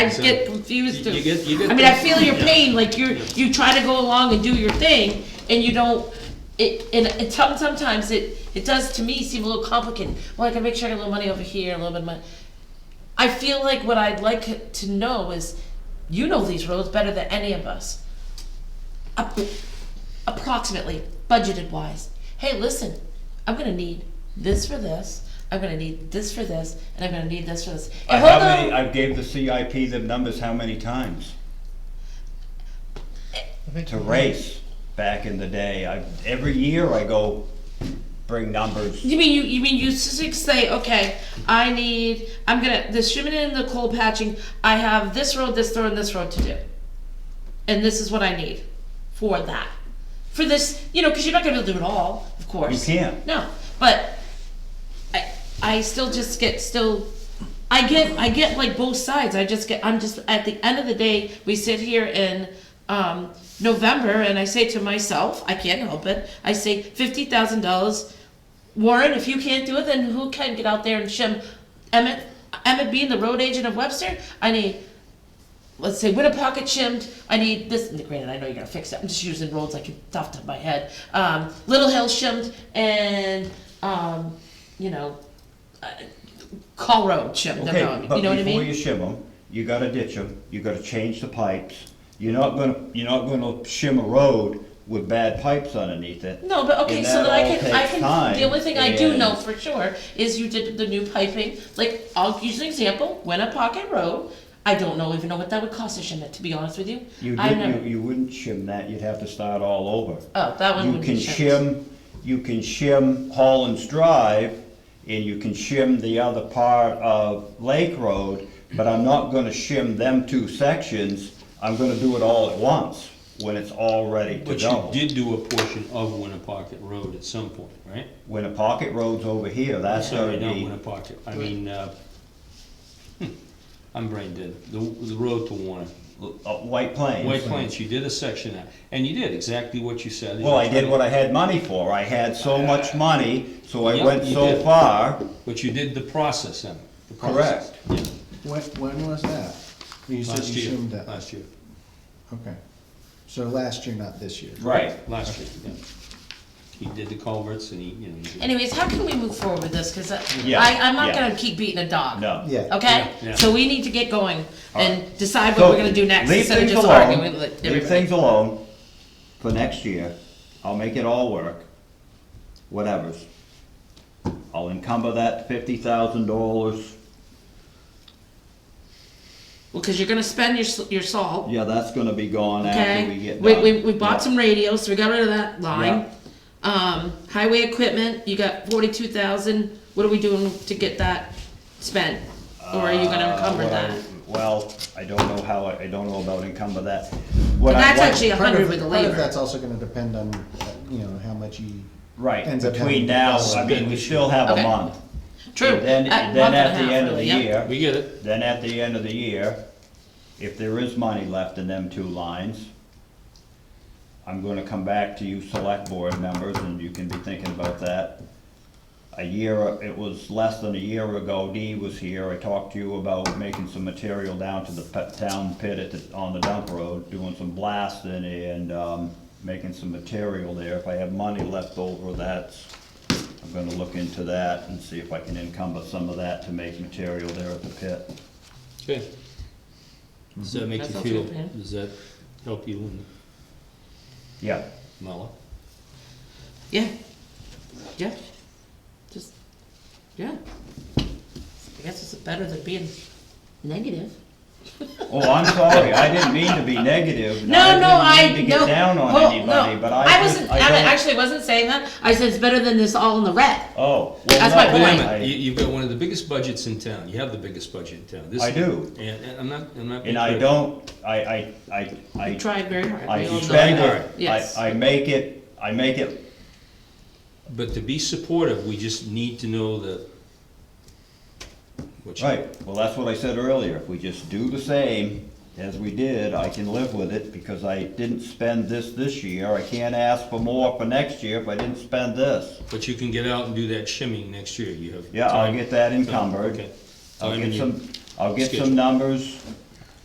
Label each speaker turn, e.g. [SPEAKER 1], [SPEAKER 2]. [SPEAKER 1] I just get confused.
[SPEAKER 2] You- you get- you get
[SPEAKER 1] I mean, I
[SPEAKER 2] those-
[SPEAKER 1] feel your
[SPEAKER 2] yeah.
[SPEAKER 1] pain, like you're, you try to go along and do your thing, and you don't, it, and it, some- sometimes it, it does to me seem a little complicated. Well, I can make sure I get a little money over here, a little bit of money. I feel like what I'd like to know is, you know these roads better than any of us. Ap- Approximately, budgeted wise. Hey, listen, I'm gonna need this for this, I'm gonna need this for this, and I'm gonna need this for this.
[SPEAKER 3] I,
[SPEAKER 1] And
[SPEAKER 3] Uh, how
[SPEAKER 1] hold on-
[SPEAKER 3] many, I gave the CIP the numbers how many times? To race, back in the day, I, every year I go bring numbers.
[SPEAKER 1] You mean you? You mean you s- s- say, okay, I need. I'm gonna the shimmin and the coal patching. I have this road, this road, and this road to do, and this is what I need for that. For this, you know, because you're not gonna be able to do it all, of course.
[SPEAKER 3] You can't.
[SPEAKER 1] No, but I, I still just get still. I get, I get like both sides. I just get, I'm just at the end of the day, we sit here in um, November, and I say to myself, I can't help it. I say fifty thousand dollars Warren, if you can't do it, then who can get out there and shim Emmett, Emmett being the road agent of Webster? I need, let's say, Winnipocket shimmed, I need this, granted, I know you're gonna fix it, I'm just using roads like it's off the top of my head. Um, Little Hill shimmed and, um, you know, uh, Call Road shimmed,
[SPEAKER 3] Okay,
[SPEAKER 1] I'm wrong,
[SPEAKER 3] but
[SPEAKER 1] you know what I
[SPEAKER 3] before you
[SPEAKER 1] mean?
[SPEAKER 3] shim them, you gotta ditch them, you gotta change the pipes. You're not gonna, you're not gonna shim a road with bad pipes underneath it.
[SPEAKER 1] No, but okay,
[SPEAKER 3] And
[SPEAKER 1] so
[SPEAKER 3] that
[SPEAKER 1] then I
[SPEAKER 3] all
[SPEAKER 1] can, I
[SPEAKER 3] takes
[SPEAKER 1] can,
[SPEAKER 3] time,
[SPEAKER 1] the only thing I do
[SPEAKER 3] and-
[SPEAKER 1] know for sure is you did the new piping, like, I'll use an example, Winnipocket Road, I don't know, even know what that would cost to shim it, to be honest with you.
[SPEAKER 3] You
[SPEAKER 1] I
[SPEAKER 3] didn't,
[SPEAKER 1] never-
[SPEAKER 3] you, you wouldn't shim that, you'd have to start all over.
[SPEAKER 1] Oh, that one
[SPEAKER 3] You
[SPEAKER 1] would be
[SPEAKER 3] can
[SPEAKER 1] shim.
[SPEAKER 3] shim, you can shim Holland's Drive, and you can shim the other part of Lake Road, but I'm not gonna shim them two sections, I'm gonna do it all at once, when it's all ready to
[SPEAKER 2] But you
[SPEAKER 3] go.
[SPEAKER 2] did do a portion of Winnapocket Road at some point, right?
[SPEAKER 3] When a pocket road's over here, that's
[SPEAKER 2] Sorry,
[SPEAKER 3] gonna
[SPEAKER 2] not
[SPEAKER 3] be,
[SPEAKER 2] Winnapocket, I mean, uh, hmm, I'm brain dead, the, the road to Warner.
[SPEAKER 3] uh, White Plains.
[SPEAKER 2] White Plains, you did a section of that, and you did exactly what you said.
[SPEAKER 3] Well, I did what I had money for, I had so much money, so I
[SPEAKER 2] Yep,
[SPEAKER 3] went
[SPEAKER 2] you
[SPEAKER 3] so
[SPEAKER 2] did.
[SPEAKER 3] far,
[SPEAKER 2] But you did the process in it. the process.
[SPEAKER 4] When, when was that? You said
[SPEAKER 2] Last
[SPEAKER 4] you
[SPEAKER 2] year,
[SPEAKER 4] assumed that,
[SPEAKER 2] last year,
[SPEAKER 4] okay. So last year, not this year.
[SPEAKER 3] right.
[SPEAKER 2] last year, yeah. He did the culverts and he, you know. he did-
[SPEAKER 1] Anyways, how can we move forward with this? Because I,
[SPEAKER 3] Yeah,
[SPEAKER 1] I, I'm not
[SPEAKER 3] yeah.
[SPEAKER 1] gonna keep beating a dog.
[SPEAKER 3] No.
[SPEAKER 4] Yeah.
[SPEAKER 1] Okay?
[SPEAKER 2] Yeah, yeah.
[SPEAKER 1] So we need to get going and decide what
[SPEAKER 3] So,
[SPEAKER 1] we're gonna do next
[SPEAKER 3] leave
[SPEAKER 1] instead of
[SPEAKER 3] things
[SPEAKER 1] just
[SPEAKER 3] alone.
[SPEAKER 1] arguing with
[SPEAKER 3] Leave
[SPEAKER 1] everybody.
[SPEAKER 3] things alone for next year. I'll make it all work, whatever's. I'll encumber that fifty thousand dollars.
[SPEAKER 1] Well, because you're gonna spend your, s- your salt,
[SPEAKER 3] Yeah, that's gonna be gone after we
[SPEAKER 1] okay?
[SPEAKER 3] get
[SPEAKER 1] We,
[SPEAKER 3] done.
[SPEAKER 1] we, we bought some radios, so we got rid of that line.
[SPEAKER 3] Yeah.
[SPEAKER 1] Um, highway equipment, you got forty-two thousand. What are we doing to get that spent? Or are you gonna
[SPEAKER 3] Uh,
[SPEAKER 1] encumber
[SPEAKER 3] what I-
[SPEAKER 1] that?
[SPEAKER 3] Well, I don't know how, I I don't know about encumber that.
[SPEAKER 1] But that's actually a
[SPEAKER 4] Part
[SPEAKER 1] hundred
[SPEAKER 4] of-
[SPEAKER 1] with the
[SPEAKER 4] part of
[SPEAKER 1] labor.
[SPEAKER 4] that's also gonna depend on, uh, you know, how much you.
[SPEAKER 3] Right,
[SPEAKER 4] ends up
[SPEAKER 3] between
[SPEAKER 4] having-
[SPEAKER 3] now, I mean, we still have
[SPEAKER 1] Okay.
[SPEAKER 3] a month.
[SPEAKER 1] True.
[SPEAKER 3] And Then,
[SPEAKER 1] A month
[SPEAKER 3] then
[SPEAKER 1] and a
[SPEAKER 3] at the
[SPEAKER 1] half,
[SPEAKER 3] end of the
[SPEAKER 1] really, yep.
[SPEAKER 3] year.
[SPEAKER 2] We get it,
[SPEAKER 3] Then at the end of the year, if there is money left in them two lines, I'm gonna come back to you select board members, and you can be thinking about that. A year, it was less than a year ago, Dee was here, I talked to you about making some material down to the pe- town pit at the, on the dump road, doing some blasting and, um, making some material there. If I have money left over, that's, I'm gonna look into that and see if I can encumber some of that to make material there at the pit.
[SPEAKER 2] okay.
[SPEAKER 3] Mm-hmm.
[SPEAKER 2] Does that make
[SPEAKER 1] That's
[SPEAKER 2] you
[SPEAKER 1] not
[SPEAKER 2] feel,
[SPEAKER 1] too bad.
[SPEAKER 2] does that help you in
[SPEAKER 3] Yeah,
[SPEAKER 2] Mala?
[SPEAKER 1] Yeah. Yeah. Just, yeah. I guess it's better than being negative.
[SPEAKER 3] oh, I'm sorry, I didn't mean to be negative.
[SPEAKER 1] No, no, I, no.
[SPEAKER 3] didn't mean to get down on
[SPEAKER 1] Well,
[SPEAKER 3] anybody,
[SPEAKER 1] no,
[SPEAKER 3] but I just,
[SPEAKER 1] wasn't,
[SPEAKER 3] I
[SPEAKER 1] I
[SPEAKER 3] don't.
[SPEAKER 1] actually wasn't saying that. I said it's better than this all in the red.
[SPEAKER 3] Oh, well,
[SPEAKER 1] That's my
[SPEAKER 3] no,
[SPEAKER 1] point.
[SPEAKER 2] Wait
[SPEAKER 3] I-
[SPEAKER 2] a minute, you, you've got one of the biggest budgets in town, you have the biggest budget in town. This-
[SPEAKER 3] I do.
[SPEAKER 2] And, and I'm not, I'm not. being
[SPEAKER 3] And I
[SPEAKER 2] critical.
[SPEAKER 3] don't, I, I, I, I.
[SPEAKER 1] We tried very hard.
[SPEAKER 3] I
[SPEAKER 1] We all
[SPEAKER 3] suspend
[SPEAKER 1] tried.
[SPEAKER 3] it,
[SPEAKER 1] Yes.
[SPEAKER 3] I, I make it, I make it,
[SPEAKER 2] But to be supportive, we just need to know the. what you-
[SPEAKER 3] right, well, that's what I said earlier, if we just do the same as we did, I can live with it, because I didn't spend this this year, I can't ask for more for next year if I didn't spend this.
[SPEAKER 2] But you can get out and do that shimming next year, you have.
[SPEAKER 3] Yeah, I'll
[SPEAKER 2] time.
[SPEAKER 3] get that encumbered.
[SPEAKER 2] Okay.
[SPEAKER 3] I'll
[SPEAKER 2] Time
[SPEAKER 3] get
[SPEAKER 2] and you-
[SPEAKER 3] some, I'll get
[SPEAKER 2] schedule.
[SPEAKER 3] some numbers,